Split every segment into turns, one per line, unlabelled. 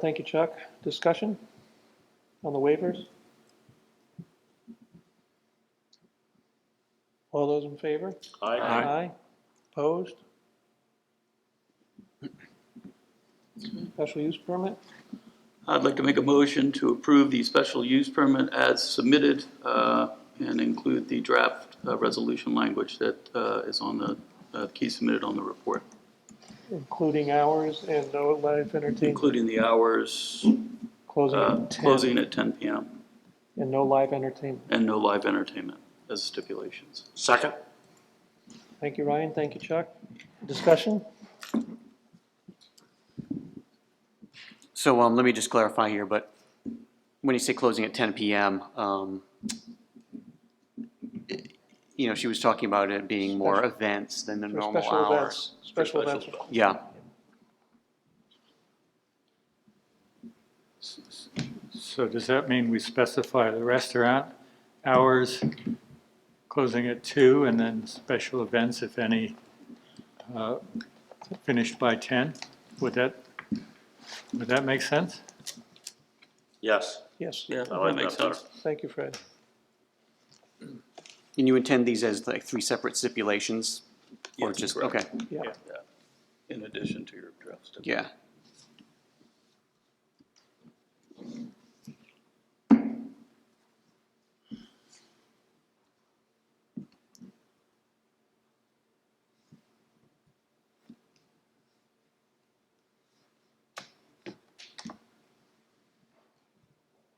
Thank you, Chuck. Discussion on the waivers? All those in favor?
Aye.
Aye. Opposed? Special use permit?
I'd like to make a motion to approve the special use permit as submitted uh, and include the draft uh, resolution language that uh, is on the, uh, key submitted on the report,
Including hours and no live entertainment,
including the hours,
closing
uh,
at 10.
closing at 10 PM
And no live entertainment.
and no live entertainment as stipulations.
Second?
Thank you, Ryan. Thank you, Chuck. Discussion?
So um, let me just clarify here, but when you say closing at 10 PM, um, you know, she was talking about it being more events than the
For
normal
special
hours.
events. Special events.
Yeah,
So does that mean we specify the restaurant hours, closing at two, and then special events, if any, uh, finished by ten? Would that, would that make sense?
Yes.
Yes.
Yeah,
I like
that makes
that better.
sense.
Thank you, Fred.
and you intend these as like three separate stipulations? Or
Yes,
just,
correct.
okay,
Yeah.
In addition to your draft. stipulation.
yeah.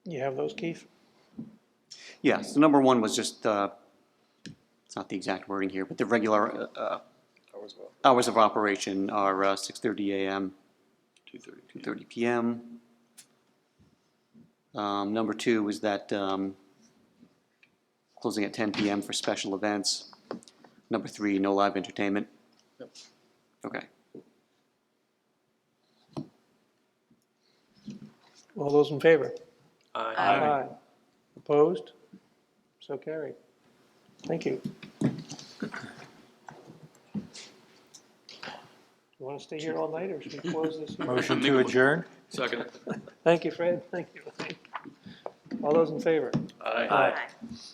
You have those, Keith?
Yeah, so number one was just, uh, it's not the exact wording here, but the regular uh, uh, hours of operation are uh, 6:30 AM
2:30.
2:30 PM. Um, Number two is that um, closing at 10 PM for special events. Number three, no live entertainment.
Yep.
Okay,
All those in favor?
Aye.
Aye. Opposed? So carried. Thank you. You want to stay here all night, or should we close this here?
Motion to adjourn?
Second?
Thank you, Fred, thank you. All those in favor?
Aye.
Aye.